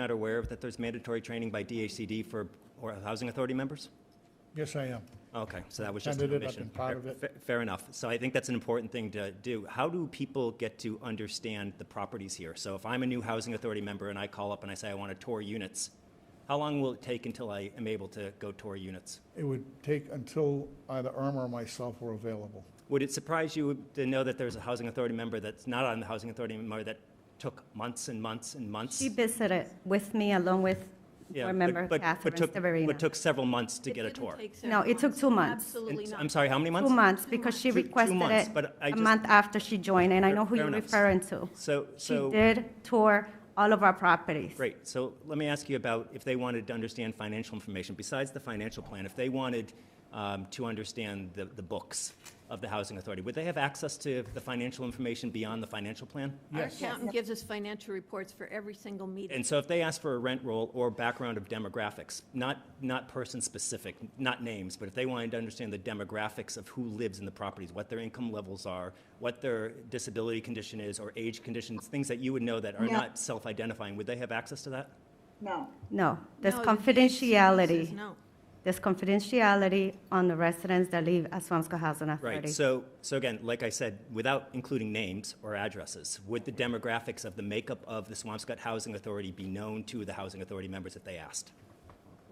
not aware of that there's mandatory training by DHCD for or housing authority members? Yes, I am. Okay, so that was just an Attended it, I've omission. been part of Fair- it. fa- Fair enough. So I think that's an important thing to do. How do people get to understand the properties here? So if I'm a new housing authority member and I call up and I say I want to tour units, how long will it take until I am able to go tour units? It would take until either Irma or myself were available. Would it surprise you to know that there's a housing authority member that's not on the housing authority member that took months and months and months? She visited with me along with Yeah, board but- member but- but Catherine took- But Severino. took several months to get a didn't tour. take No, seven it took two months. Absolutely And- not. I'm sorry, how many months? Two months, because she Two- two requested months, it but I a just- month after she joined, and I Fair- know who fair you're enough. referring to. So, She so. did tour all of our properties. Great. So let me ask you about if they wanted to understand financial information, besides the financial plan, if they wanted um, to understand the, the books of the housing authority, would they have access to the financial information beyond the financial plan? Our accountant gives us financial reports for every single meeting. And so if they ask for a rent roll or background of demographics, not, not person-specific, not names, but if they wanted to understand the demographics of who lives in the properties, what their income levels are, what their disability condition is, or age conditions, things that you would know that are Yeah. not self-identifying, would they have access to that? No. No, there's No, confidentiality. No. There's confidentiality on the residents that live at Swamscott Housing Right, Authority. so, so again, like I said, without including names or addresses, would the demographics of the makeup of the Swampscott Housing Authority be known to the Housing Authority members if they asked?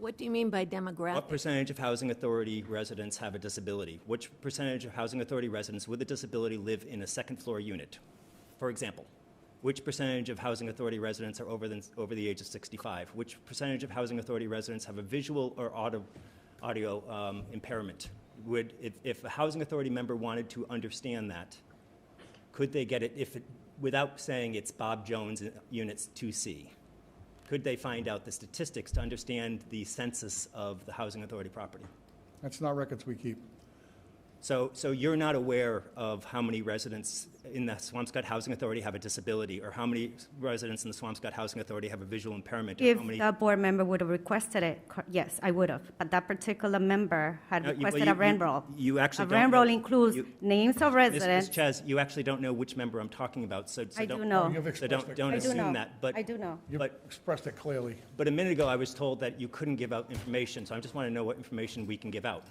What do you mean by What demographic? percentage of Housing Authority residents have a disability? Which percentage of Housing Authority residents with a disability live in a second-floor unit? For example, which percentage of Housing Authority residents are over than, over the age of 65? Which percentage of Housing Authority residents have a visual or audio, audio um, impairment? Would, if, if a Housing Authority member wanted to understand that, could they get it if, it- without saying it's Bob Jones in units 2C? Could they find out the statistics to understand the census of the housing authority property? That's not records we keep. So, so you're not aware of how many residents in the Swampscott Housing Authority have a disability, or how many residents in the Swampscott Housing Authority have a visual impairment, or If how many? the board member would have requested it, cor- yes, I would have. But that particular member had No, you- well, requested you- a rent you- roll. you actually A don't rent know- roll includes you- names Ms. Ms. of residents. Chaz, you actually don't know which member I'm talking about, so, so I don't. do know. You've So expressed don't, it. don't I do know. assume that, but. I do know. You've But, expressed it clearly. but a minute ago, I was told that you couldn't give out information, so I just want to know what information we can give out.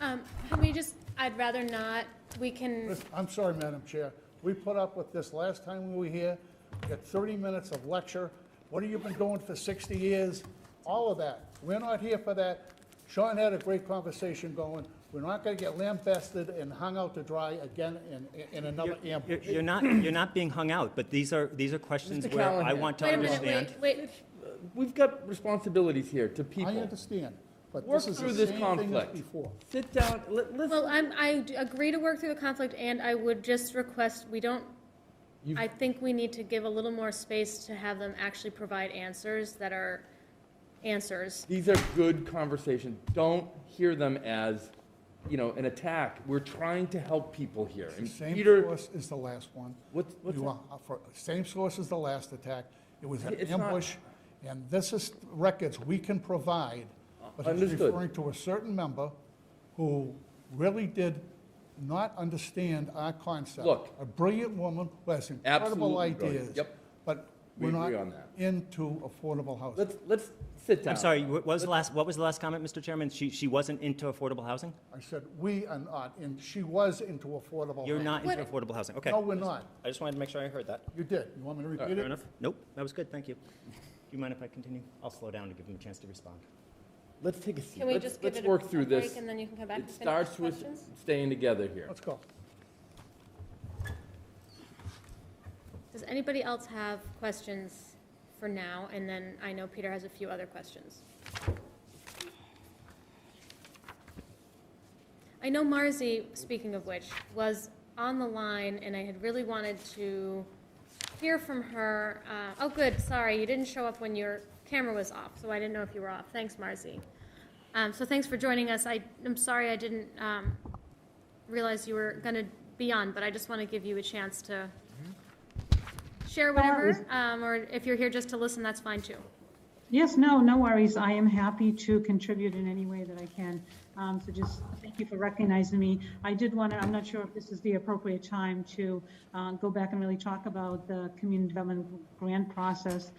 Um, Can we just, I'd rather not, we can, Listen, I'm sorry, Madam Chair. We put up with this last time we were here. We Got 30 minutes of lecture. What have you been doing for 60 years? All of that. We're not here for that. Sean had a great conversation going. We're not going to get lambasted and hung out to dry again in, in another You're- ambush. You're not, you're not being hung out, but these are, these are questions Mr. where I Callahan. want to wait a minute, understand. wait, wait. We've got responsibilities here to people. I understand, but Work this is through the this same thing as conflict. before. Sit down, let, listen. Well, I'm, I d- agree to work through the conflict, and I would just request, we don't, You've- I think we need to give a little more space to have them actually provide answers that are answers. These are good conversations. Don't hear them as, you know, an attack. We're trying to help people here. And Same Peter, source is the last one. What's- what's You that? are- uh, for- Same source is the last attack. It was an It's not- ambush, and this is records we can provide. But he's Understood. referring to a certain member who really did not understand our concept. Look. A brilliant woman who has incredible Absolutely brilliant. ideas. Yep. But We we're not agree on that. into affordable housing. let's, let's sit down. I'm sorry, what was the last, what was the last comment, Mr. Chairman? She, she wasn't into affordable housing? I said, we are not, and she was into affordable housing. You're not into What- affordable housing, okay. Oh. No, we're not. I just wanted to make sure I heard that. You did. You want me to repeat it? Fair enough? Nope, that was good, thank you. Do you mind if I continue? I'll slow down to give him a chance to respond. Let's take a seat. Can we Let's- just give let's it a work through break this. and then you can come back and It finish starts with questions? staying together here. Let's go. Does anybody else have questions for now? And then I know Peter has a few other questions. I know Marzi, speaking of which, was on the line, and I had really wanted to hear from her. Uh, Oh, good, sorry, you didn't show up when your camera was off, so I didn't know if you were off. Thanks, Marzi. Um, So thanks for joining us. I, I'm sorry I didn't um, realize you were going to be on, but I just want to give you a chance to share whatever, um, or if you're here just to listen, that's fine too. Yes, no, no worries. I am happy to contribute in any way that I can. Um, so just thank you for recognizing me. I did want to, I'm not sure if this is the appropriate time to uh, go back and really talk about the community development grant process